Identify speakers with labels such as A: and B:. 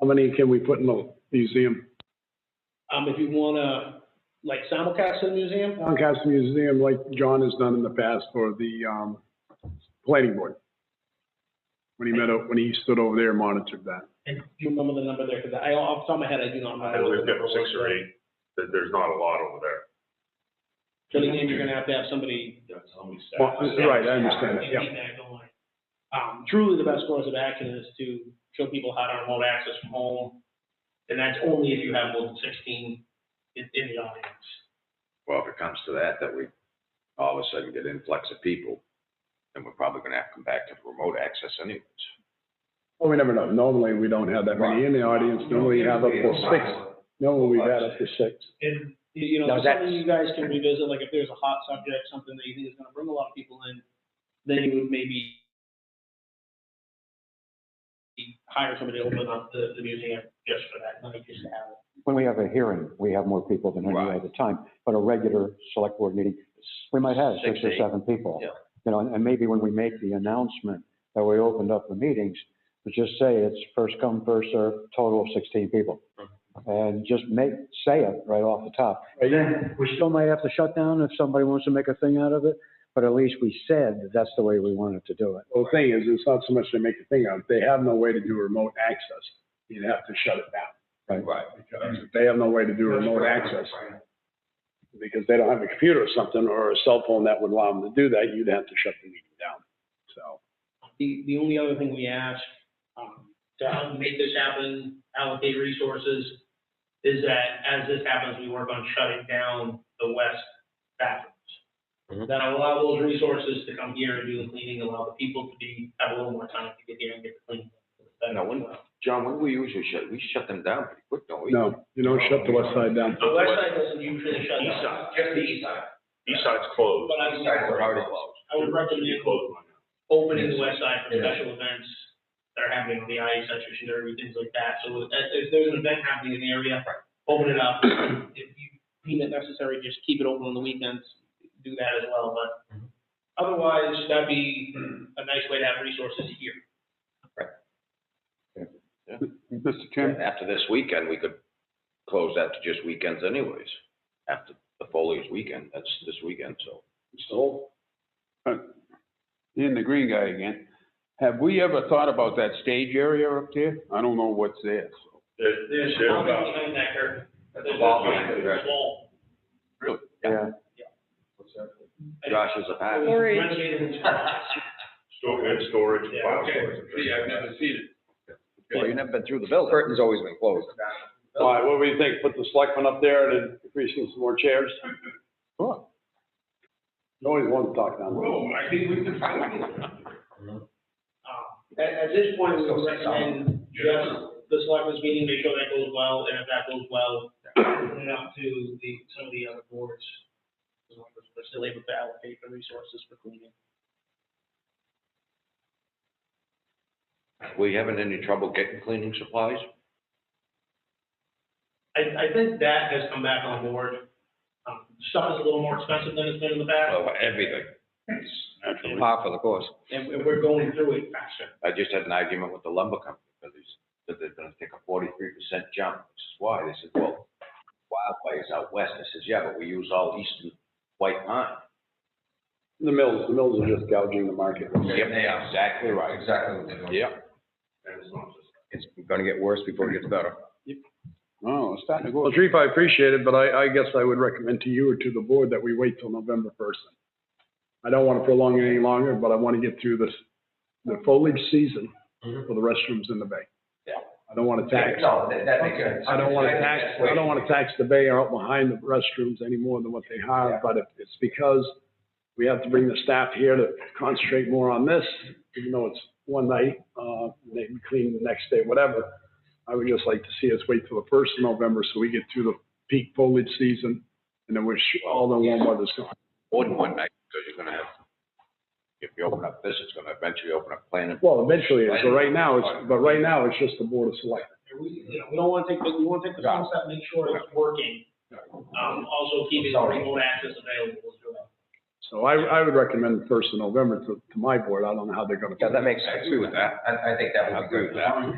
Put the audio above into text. A: How many can we put in the museum?
B: Um, if you wanna, like simulcast in the museum,
A: Comcast Museum, like John has done in the past for the, um, planning board. When he met, up- when he stood over there and monitored that.
B: do you remember the number there? Cause I, off the top of my head, I do not
C: I know
B: remember.
C: we've got six or eight, there, there's not a lot over there.
B: But again, you're gonna have to have somebody.
A: Well, right, I understand that, yeah.
B: Um, truly the best course of action is to show people how to remote access from home. And that's only if you have more than sixteen in, in the audience.
D: Well, if it comes to that, that we all of a sudden get influx of people, then we're probably gonna have to come back to the remote access anyways.
A: Well, we never know. Normally, we don't have that many in the audience. Normally, we have up to six. Normally, we've had up to six.
B: And, you you know,
E: No,
B: it's
E: that's-
B: something you guys can revisit, like if there's a hot subject, something that you think is gonna bring a lot of people in, then you would maybe hire somebody to open up the, the museum just for that, night, just to have it.
E: When we have a hearing, we have more people than any
D: Right.
E: other time, but a regular select board meeting, we might have six or
D: Six, eight.
E: seven people.
D: Yeah.
E: You know, and and maybe when we make the announcement that we opened up the meetings, we just say it's first come, first served, total of 16 people. And just make, say it right off the top.
A: Right.
E: Then we still might have to shut down if somebody wants to make a thing out of it, but at least we said that that's the way we wanted to do it.
A: Well, the thing is, it's not so much they make a thing of, it. they have no way to do remote access. You'd have to shut it down.
D: Right.
A: Because if they have no way to do remote access, because they don't have a computer or something, or a cell phone that would allow them to do that, you'd have to shut the meeting down. So,
B: The, the only other thing we ask, um, to help make this happen, allocate resources, is that as this happens, we work on shutting down the west bathrooms.
D: Mhm.
B: That allow those resources to come here and do the cleaning, allow the people to be, have a little more time to get here and get the cleaning.
D: No, when- John, when we usually shut, we shut them down pretty quick, don't we?
A: no, you don't shut the west side down.
B: The west side doesn't usually shut
C: East
B: down,
C: side.
B: just the east side,
C: East side's closed.
B: but I would, I would recommend
C: It's closed right now.
B: opening the west side for
D: Yeah.
B: special events that are happening on the ice, such as derby, things like that. So uh, if, if there's an event happening in the area, open it up. If you deem it necessary, just keep it open on the weekends, do that as well, but
C: Mm-hmm.
B: otherwise, that'd be a nice way to have resources here.
A: Mr. Chairman?
D: After this weekend, we could close that to just weekends anyways, after the foliage weekend, that's this weekend, so.
F: in the green guy again. Have we ever thought about that stage area up there? I don't know what's there. so.
C: There's, there's
B: There's nothing
C: about,
B: behind that curtain.
D: That's
B: There's
D: a ball
B: nothing.
D: game,
B: There's a
D: right?
B: wall.
E: Yeah.
D: Josh is a pass.
G: Storage.
B: Renovated and stuff.
C: stor- and storage, and file
H: Okay,
C: storage.
H: see, I've never seen it.
D: Well, you've never been through the building. Curtain's always been closed.
A: All right, what do you think? Put the selectmen up there and increasing some more chairs?
E: Sure.
A: You Always want to talk down.
H: Oh, I think we can find it.
B: Um, At, at this point, we would recommend just the selectmen's meeting, make sure that goes well, and if that goes well, open it up to the, some of the other boards. as long as We're still able to allocate the resources for cleaning.
D: Were you having any trouble getting cleaning supplies?
B: I, I think that has come back on board. Um, Stuff is a little more expensive than it's been in the past,
D: Oh, everything.
F: Naturally.
D: Par for the course.
B: and and we're going through it faster.
D: I just had an argument with the lumber company, because they said they're gonna take a forty-three percent jump, which is why, they said, well, wildfires out west, I says, yeah, but we use all eastern white pine.
A: The mills, the mills are just gouging the market.
D: Yep, exactly right. Exactly what they're doing. Yep.
C: And it's not just
D: It's gonna get worse before it gets better.
F: Oh, it's starting to go.
A: Well, Chief, I appreciate it, but I, I guess I would recommend to you or to the board that we wait till November first. I don't want to prolong it any longer, but I want to get through this, the foliage season
F: Mm-hmm.
A: for the restrooms in the bay.
D: Yeah.
A: I don't want to tax,
D: No, that, that makes sense.
A: I don't want to tax, I don't want to tax the bay out behind the restrooms any more than what they have, but if- it's because we have to bring the staff here to concentrate more on this, even though it's one night, uh, they can clean the next day, whatever. I would just like to see us wait till the first of November so we get through the peak foliage season and then we're sh- all the warm weather's gone.
D: More than one night, because you're gonna have, if you open up this, it's gonna eventually open up planning.
A: Well, eventually, so right now, it's, but right now, it's just the board of selectmen.
B: And We, you know, we don't want to take, the- we want to take the small step, make sure it's working. Um, also keeping remote access available as well.
A: So I, I would recommend the first of November to, to my board. I don't know how they're gonna.
D: makes sense. I agree with that. I, I think that would be good.